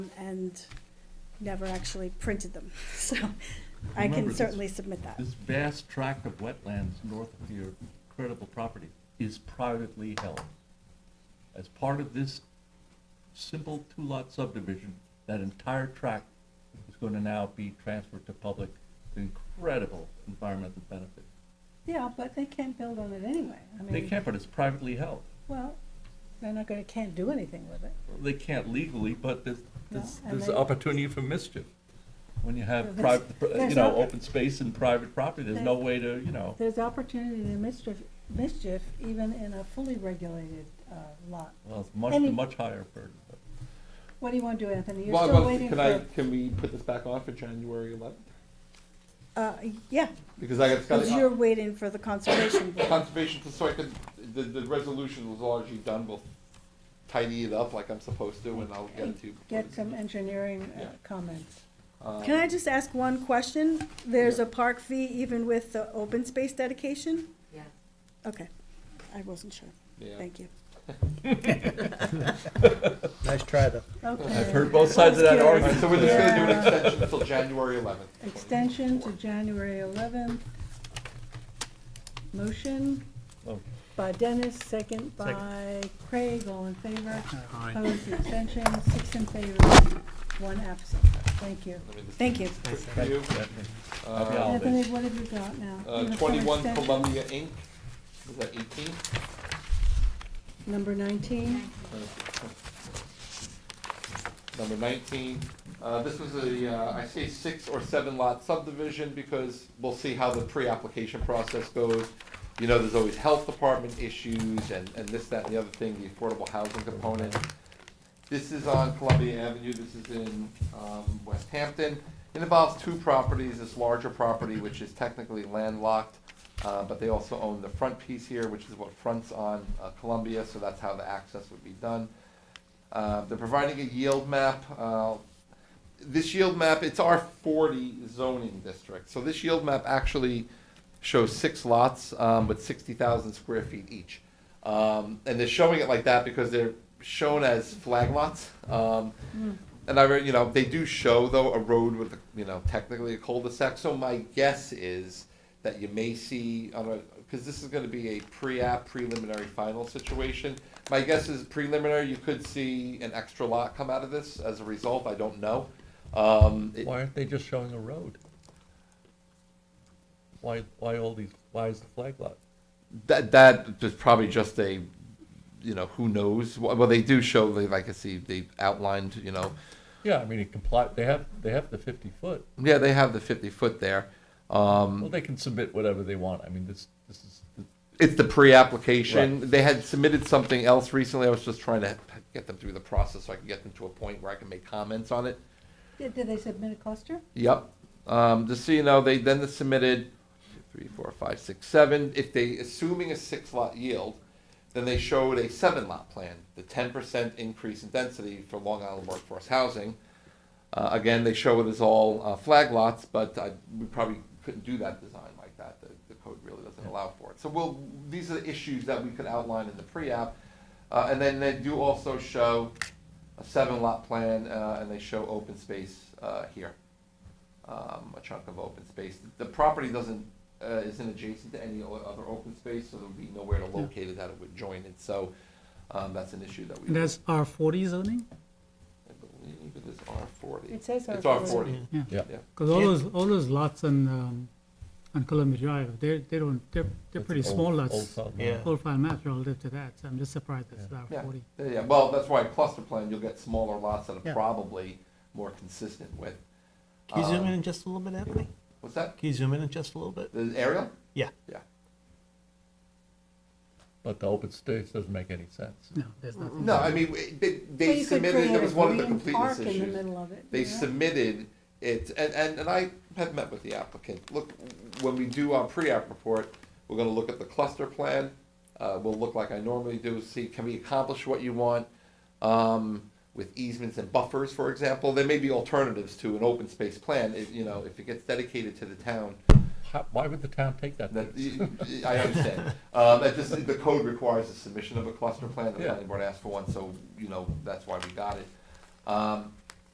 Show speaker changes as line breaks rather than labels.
and never actually printed them. So I
Remember,
can
this-
certainly submit that.
This vast tract of wetlands north of your credible property is privately held. As part of this simple two-lot subdivision, that entire tract is going to now be transferred to public, incredible environmental benefit.
Yeah, but they can't build on it anyway. I
They
mean,
can't, but it's privately held.
well, they're not gonna, can't do anything with it.
They can't legally, but there's, there's,
No, and
there's
they-
opportunity for mischief. When you have
There's-
private,
there's
you know,
not-
open space and private property, there's no
There-
way to, you know,
There's opportunity to mischief, mischief even in a fully regulated, uh, lot.
well, it's much,
Any-
much higher burden. but-
What do you wanna do, Anthony? You're
Well,
still
well,
waiting
can I,
for,
can we put this back on for January eleventh?
Uh, yeah,
Because I got,
because you're
got,
waiting for the conservation board.
conservation, so I could, the, the resolution was largely done, we'll tidy it up like I'm supposed to, and I'll get it to you. before
get
the-
some engineering uh,
Yeah.
comments.
um,
Can I just ask one question? There's
Yeah.
a park fee even with the open space dedication?
Yeah.
Okay, I wasn't sure.
yeah.
Thank you.
Nice try, though.
Okay.
I've heard both sides of that
That's
All right,
argument.
so we're just gonna do an
Yeah.
extension until January eleventh.
Extension to January eleventh. Motion
Oh,
by Dennis, second by Craig, all in favor. Opposed, extension, six in favor, one absent. Thank you.
Thank you.
For you,
Happy
uh,
holidays.
Anthony, what have you got now?
uh,
Uniform
twenty-one
extension,
Columbia Inc., is that eighteen?
Number nineteen,
Number nineteen, uh, this was a, uh, I say six or seven lot subdivision because we'll see how the pre-application process goes. You know, there's always health department issues and, and this, that, and the other thing, the affordable housing component. This is on Columbia Avenue, this is in, um, West Hampton. It involves two properties, this larger property, which is technically landlocked, uh, but they also own the front piece here, which is what fronts on uh, Columbia, so that's how the access would be done. Uh, they're providing a yield map. Uh, this yield map, it's our 40 zoning district. So this yield map actually shows six lots um, with 60,000 square feet each. Um, and they're showing it like that because they're shown as flag lots. Um, And I, re- you know, they do show though a road with, you know, technically a cul-de-sac. So my guess is that you may see on a, because this is gonna be a pre-app preliminary final situation. My guess is preliminary, you could see an extra lot come out of this as a result, I don't know. Um, it-
Why aren't they just showing a road? Why, why all these, why is the flag lot?
that, that is probably just a, you know, who knows? Well, well, they do show, they- like I see, they outlined, you know,
Yeah, I mean, it comply, they have, they have the fifty foot.
yeah, they have the fifty foot there. Um,
Well, they can submit whatever they want. I mean, this, this is,
It's the pre-application. They had submitted something else recently. I was just trying to get them through the process so I can get them to a point where I can make comments on it.
did did they submit a cluster?
Yep. Um, just so you know, they then submitted three, four, five, six, seven. If they, assuming a six lot yield, then they showed a seven lot plan, the ten percent increase in density for Long Island workforce housing. Uh, again, they show it as all uh, flag lots, but I, we probably couldn't do that design like that. The, the code really doesn't allow for it. So we'll, these are the issues that we could outline in the pre-app. Uh, and then they do also show a seven lot plan, uh, and they show open space, uh, here. Um, a chunk of open space. The property doesn't, uh, isn't adjacent to any o- other open space, so there would be nowhere to locate it that it would join it, so, um, that's an issue that we.
And that's R forty zoning?
I believe it is R forty.
It says
It's
R40.
R forty,
Yeah,
yeah,
yeah.
because all those, all those lots on, um, on Columbia Drive, they, they don't, they're, they're
That's
pretty
old-
small
old
lots.
South
Yeah.
Old file maps relative to that, so I'm just surprised it's R
Yeah,
forty.
yeah, yeah. well, that's why cluster plan, you'll get smaller lots that are
Yeah.
probably more consistent with,
Can you zoom
Um,
in just a little bit, Anthony?
what's that,
Can you zoom in just a little bit?
the aerial?
Yeah.
Yeah.
But the open space doesn't make any sense.
No, there's nothing.
No, I mean, w- they,
Well,
they
you could
submitted,
create
that
a
was one of the
green
completeness
Park in the
issues.
middle of it.
They
yeah.
submitted it, and, and, and I have met with the applicant, look, when we do our pre-app report, we're gonna look at the cluster plan, uh, we'll look like I normally do, see, can we accomplish what you want? um, with easements and buffers, for example. There may be alternatives to an open space plan, if, you know, if it gets dedicated to the town.
How, why would the town take that?
That,
piece?
I understand. Uh, that just, the code requires the submission of a cluster plan, the
Yeah.
planning board asked for one, so, you know, that's why we got it. Um,